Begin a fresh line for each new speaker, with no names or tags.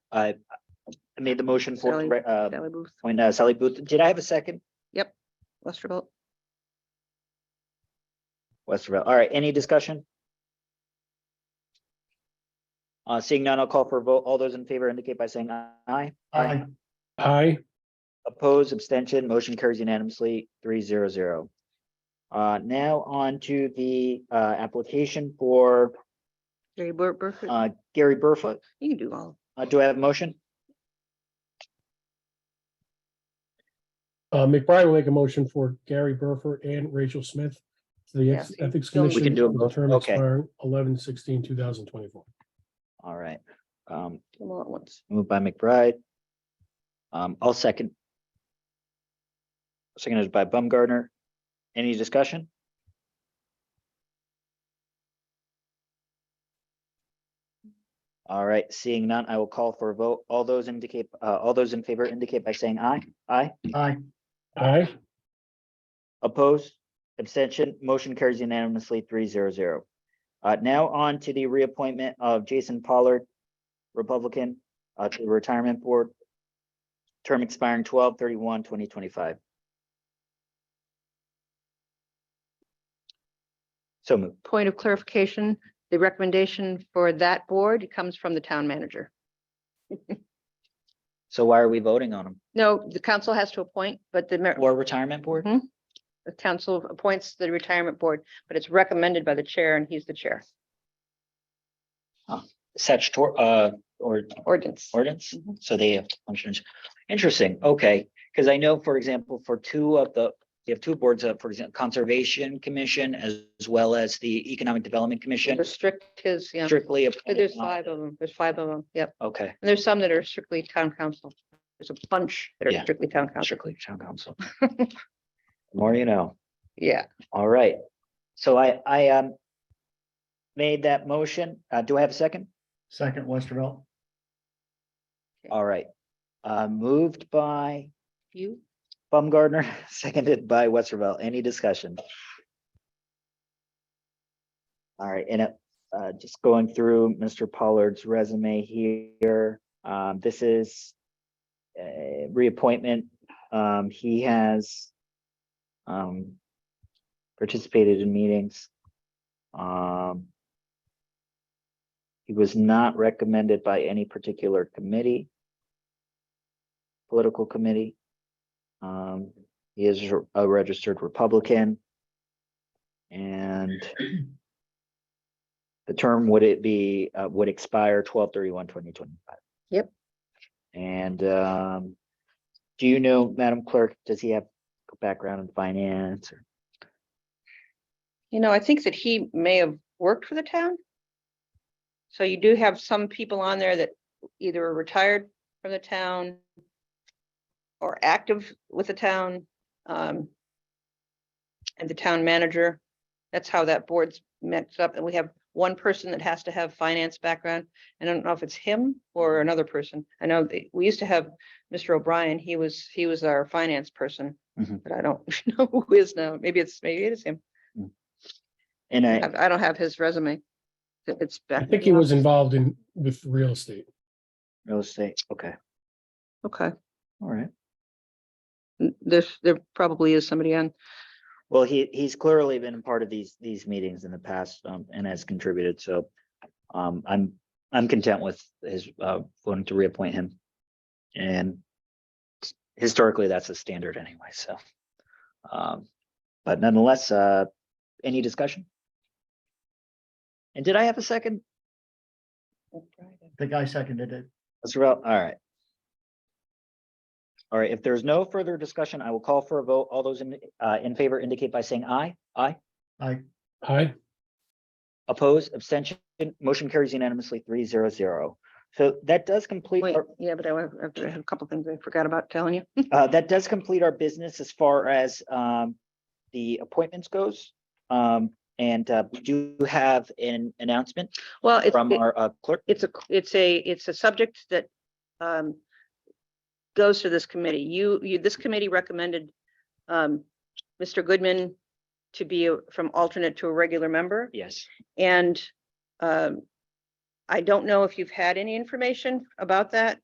I Uh, I made the motion for,
Sally.
re- uh,
Valley Booth,
appoint uh, Sally Booth. Did I have a second?
Westervelt.
Westerville. All right, any discussion? Uh, seeing none, I'll call for a vote. All those in favor indicate by saying aye.
Aye. Aye.
Opposed, abstention, motion carries unanimously, three zero zero. Uh, now on to the, uh, application for,
Jerry Bur- Burford,
uh, Gary Burfoot.
you can do all.
Uh, do I have a motion?
Uh, McBride will make a motion for Gary Burford and Rachel Smith to the Ex-
Yeah.
Ethics
We
Commission.
can
do
with
them
a
both.
term
Okay.
expiring 11-16-2024. twenty-four.
All right, um,
Them all at once.
moved by McBride. Um, I'll second. Seconded by Bumgarner. Any discussion? All right, seeing none, I will call for a vote. All those indicate, uh, all those in favor indicate by saying aye. Aye.
Aye. Aye.
Opposed, abstention, motion carries unanimously three zero zero. Uh, now on to the reappointment of Jason Pollard, Republican, uh, to the Retirement Board. Term expiring 2025. So moved.
Point of clarification, the recommendation for that board comes from the town manager.
So why are we voting on him?
No, the council has to appoint, but the mer-
Or Retirement Board?
Mhm. the council appoints the retirement board, but it's recommended by the chair and he's the chair.
Statutory, uh, or
Ordinance.
ordinance,
Mhm.
so they have functions. Interesting, okay, because I know, for example, for two of the, you have two boards up, for example, Conservation Commission as as well as the Economic Development Commission
Restrict his, yeah.
strictly.
But There's
appointed on-
five of them. There's five of them. Yep.
Okay,
And there's some that are strictly town council. There's a bunch that
Yeah.
are strictly town council.
strictly town council. The More you know,
Yeah.
all right, so I, I, um, made that motion, uh, do I have a second?
Second Westervelt.
All right, uh, moved by
You,
Baumgartner, seconded by Westervelt. Any discussion? All right, and uh, uh, just going through Mr. Pollard's resume here, um, this is a reappointment. Um, he has um, participated in meetings. Um, he was not recommended by any particular committee, political committee. Um, he is r- a registered Republican. And the term would it be, uh, would expire 2025.
Yep.
And, um, do you know, Madam Clerk, does he have a background in finance or?
you know, I think that he may have worked for the town. So you do have some people on there that either are retired from the town or active with the town. um, And the town manager, that's how that board's mixed up. And we have one person that has to have finance background. And I don't know if it's him or another person. I know that we used to have Mr. O'Brien, he was, he was our finance person.
Mhm.
But I don't know who is now. Maybe it's, maybe it is him.
And I,
I I don't have his resume. It- It's back.
I think he was involved in, with real estate.
real estate, okay,
Okay,
all right.
N- there's, there probably is somebody on.
Well, he, he's clearly been a part of these, these meetings in the past, um, and has contributed, so. Um, I'm, I'm content with his, uh, voting to reappoint him. And. Historically, that's a standard anyway, so. Um, but nonetheless, uh, any discussion? And did I have a second?
The guy seconded it.
That's right, all right. All right, if there's no further discussion, I will call for a vote. All those in, uh, in favor indicate by saying aye. Aye.
I,
Aye.
Opposed, abstention, motion carries unanimously three zero zero. So that does complete,
Wait,
our-
yeah, but I wa- I have to- I have a couple things I forgot about telling you.
uh, that does complete our business as far as, um, the appointments goes. Um, and, uh, we do have an announcement
Well, it's,
from
it-
our uh, clerk.
it's a, it's a, it's a subject that um goes to this committee. You, you, this committee recommended um Mr. Goodman to be a- from alternate to a regular member.
Yes.
And um, I don't know if you've had any information about that.